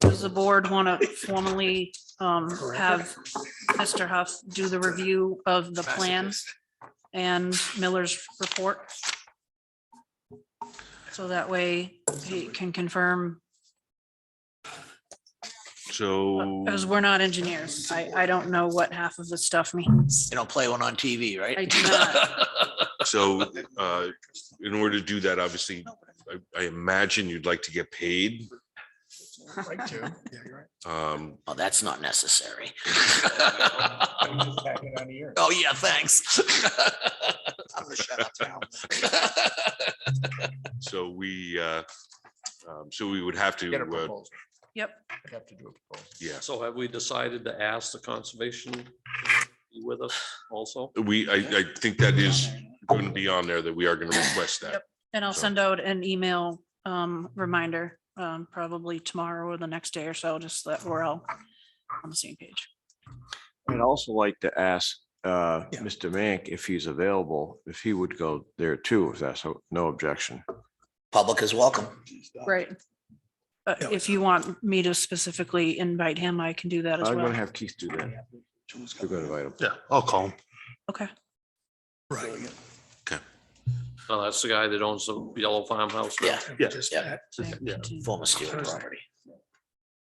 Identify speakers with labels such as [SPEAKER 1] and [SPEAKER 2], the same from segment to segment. [SPEAKER 1] Does the board want to formally um, have Mr. Huff do the review of the plans and Miller's report? So that way he can confirm,
[SPEAKER 2] So
[SPEAKER 1] because we're not engineers. I, I don't know what half of this stuff means.
[SPEAKER 3] You don't play one on TV, right?
[SPEAKER 1] I do not.
[SPEAKER 2] So, uh, in order to do that, obviously, I, I imagine you'd like to get paid.
[SPEAKER 4] Like two. Yeah, you're right.
[SPEAKER 2] Um,
[SPEAKER 3] Well, Oh, that's not necessary.
[SPEAKER 4] I'm just tacking it on to yours.
[SPEAKER 3] Oh, yeah, thanks.
[SPEAKER 4] I'm gonna shut up now.
[SPEAKER 2] so we, uh, um, so we would have to,
[SPEAKER 4] Get a
[SPEAKER 2] uh,
[SPEAKER 4] proposal.
[SPEAKER 1] Yep.
[SPEAKER 4] I have to do a proposal.
[SPEAKER 2] yeah,
[SPEAKER 5] So have we decided to ask the conservation to be with us also?
[SPEAKER 2] we, I, I think that is going to be on there that we are going to request that.
[SPEAKER 1] Yep. And I'll
[SPEAKER 2] So-
[SPEAKER 1] send out an email um, reminder, um, probably tomorrow or the next day or so, just so that we're all on the same page.
[SPEAKER 6] I'd also like to ask uh,
[SPEAKER 4] Yeah.
[SPEAKER 6] Mr. Mank if he's available, if he would go there too, if that's o- no objection.
[SPEAKER 3] Public is welcome.
[SPEAKER 1] Right.
[SPEAKER 4] Yeah.
[SPEAKER 1] But if you want me to specifically invite him, I can do that as
[SPEAKER 6] I'm gonna
[SPEAKER 1] well.
[SPEAKER 6] have Keith do that. We're gonna invite him.
[SPEAKER 7] Yeah, I'll call him.
[SPEAKER 1] Okay.
[SPEAKER 4] Right.
[SPEAKER 5] No, that's the guy that owns the yellow farmhouse. now?
[SPEAKER 3] Yeah,
[SPEAKER 7] Yeah.
[SPEAKER 4] Just
[SPEAKER 3] Yeah.
[SPEAKER 4] that.
[SPEAKER 7] Yeah.
[SPEAKER 3] former Stewart property.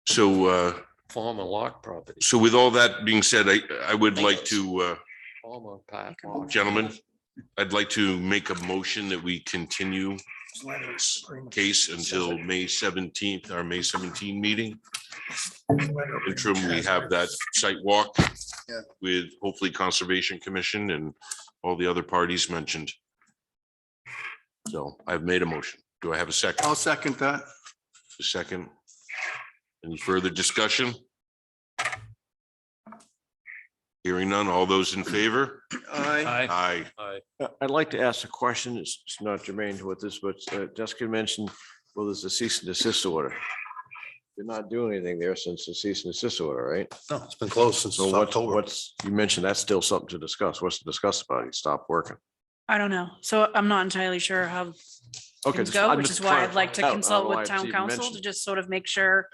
[SPEAKER 2] So, uh,
[SPEAKER 5] Former lock property,
[SPEAKER 2] so with all that being said, I, I would like to, uh,
[SPEAKER 5] former Pat. Lock.
[SPEAKER 2] gentlemen, I'd like to make a motion that we continue this case until May seventeenth, our May seventeen meeting. interim, we have that site walk
[SPEAKER 4] Yeah.
[SPEAKER 2] with hopefully Conservation Commission and all the other parties mentioned. So I've made a motion. Do I have a second?
[SPEAKER 7] I'll second that.
[SPEAKER 2] A second? Any further discussion? Hearing none. All those in favor?
[SPEAKER 7] Aye.
[SPEAKER 5] Aye.
[SPEAKER 2] Aye.
[SPEAKER 5] Aye.
[SPEAKER 6] Uh, I'd like to ask a question. It's it's not germane to what this, but uh, Jessica mentioned, well, there's a cease and desist order. You're not doing anything there since the cease and desist order, right?
[SPEAKER 7] No, it's been closed since
[SPEAKER 6] So what's,
[SPEAKER 7] October.
[SPEAKER 6] what's, you mentioned that's still something to discuss. What's to discuss about? it? Stop working.
[SPEAKER 1] I don't know. So I'm not entirely sure how
[SPEAKER 6] Okay,
[SPEAKER 1] things
[SPEAKER 6] just-
[SPEAKER 1] go,
[SPEAKER 6] I'm
[SPEAKER 1] which
[SPEAKER 6] just
[SPEAKER 1] is why
[SPEAKER 6] trying
[SPEAKER 1] I'd like to
[SPEAKER 6] find out. I don't
[SPEAKER 1] consult
[SPEAKER 6] know why
[SPEAKER 1] with
[SPEAKER 6] it's
[SPEAKER 1] town
[SPEAKER 6] even
[SPEAKER 1] council to
[SPEAKER 6] mentioned.
[SPEAKER 1] just sort of make sure,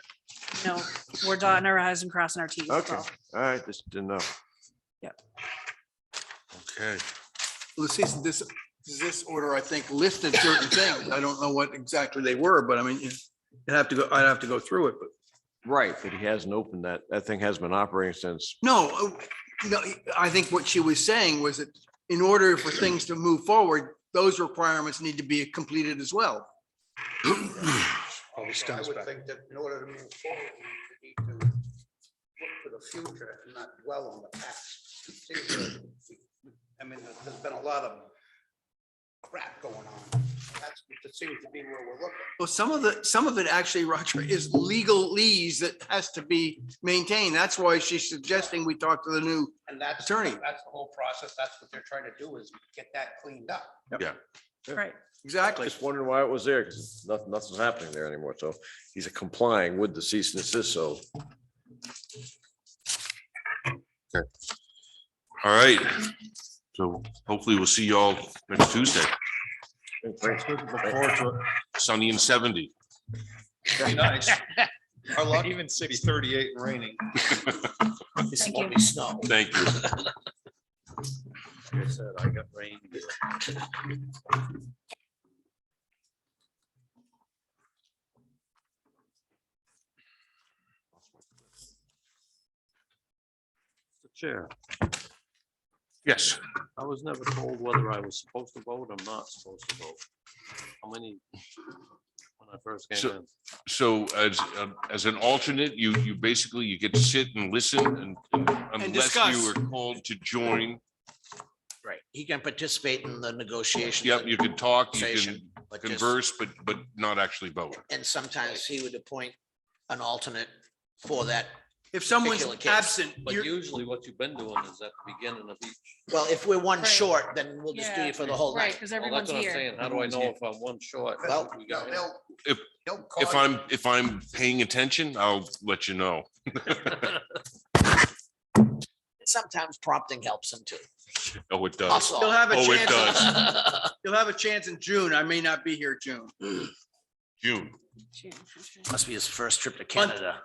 [SPEAKER 1] you know, we're dotting our i's and crossing our t's. is
[SPEAKER 6] Okay,
[SPEAKER 1] all.
[SPEAKER 6] all right, just didn't know.
[SPEAKER 2] Okay.
[SPEAKER 7] The cease and desist, desist order, I think, listed certain things. I don't know what exactly they were, but I mean, you- you'd have to go, I'd have to go through it, but
[SPEAKER 6] Right, but he hasn't opened that. That thing has been operating since
[SPEAKER 7] no, uh, no, I think what she was saying was that in order for things to move forward, those requirements need to be completed as well.
[SPEAKER 4] Always
[SPEAKER 8] So I
[SPEAKER 4] stems
[SPEAKER 8] would
[SPEAKER 4] back.
[SPEAKER 8] think that in order to move forward, we need to look to the future and not dwell on the past. See, uh, we- we- I mean, there's- there's been a lot of crap going on. That's what it seems to be where we're looking.
[SPEAKER 7] Well, some of the, some of it actually, Roger, is legalese that has to be maintained. That's why she's suggesting we talk to the new
[SPEAKER 8] And that's,
[SPEAKER 7] Attorney.
[SPEAKER 8] that's the whole process. That's what they're trying to do is get that cleaned up.
[SPEAKER 1] Right.
[SPEAKER 7] Exactly.
[SPEAKER 6] Just wondering why it was there, because nothing, nothing's happening there anymore, so he's complying with the cease and desist, so.
[SPEAKER 2] All right. So hopefully we'll see y'all next Tuesday, sunny and seventy.
[SPEAKER 4] Even six thirty-eight raining.
[SPEAKER 3] This
[SPEAKER 1] Thank
[SPEAKER 3] won't
[SPEAKER 1] you.
[SPEAKER 3] be snow.
[SPEAKER 2] Thank you.
[SPEAKER 5] Mr. Chair,
[SPEAKER 2] Yes.
[SPEAKER 5] I was never told whether I was supposed to vote or not supposed to vote. How many? When I first came
[SPEAKER 2] So-
[SPEAKER 5] in.
[SPEAKER 2] So as, um, as an alternate, you, you basically, you get to sit and listen and- and unless
[SPEAKER 4] discuss.
[SPEAKER 2] you were called to join,
[SPEAKER 3] Right. He can participate in the negotiations.
[SPEAKER 2] yep, you can talk, you can
[SPEAKER 3] Conversation, but just-
[SPEAKER 2] converse, but, but not actually vote.
[SPEAKER 3] And sometimes he would appoint an alternate for that.
[SPEAKER 7] If someone's
[SPEAKER 3] Particular case.
[SPEAKER 7] absent,
[SPEAKER 5] But
[SPEAKER 7] you're,
[SPEAKER 5] usually what you've been doing is at the beginning of each.
[SPEAKER 3] Well, if we're one
[SPEAKER 1] Right.
[SPEAKER 3] short, then we'll just do
[SPEAKER 1] Yeah.
[SPEAKER 3] you for the whole night.
[SPEAKER 1] because
[SPEAKER 5] Well, that's what I'm saying. How do I know if I'm one short?
[SPEAKER 3] Well,
[SPEAKER 5] We
[SPEAKER 8] They'll-
[SPEAKER 5] got in.
[SPEAKER 8] they'll-
[SPEAKER 2] If-
[SPEAKER 8] they'll call
[SPEAKER 2] If
[SPEAKER 8] you.
[SPEAKER 2] I'm, if I'm paying attention, I'll let you know.
[SPEAKER 3] Sometimes prompting helps him too.
[SPEAKER 2] Oh, it does.
[SPEAKER 3] Us all.
[SPEAKER 7] you'll have a
[SPEAKER 2] Oh, it
[SPEAKER 7] chance,
[SPEAKER 2] does.
[SPEAKER 7] in- you'll have a chance in June. I may not be here June.
[SPEAKER 2] June.
[SPEAKER 1] June, okay.
[SPEAKER 3] Must be his first trip to Canada.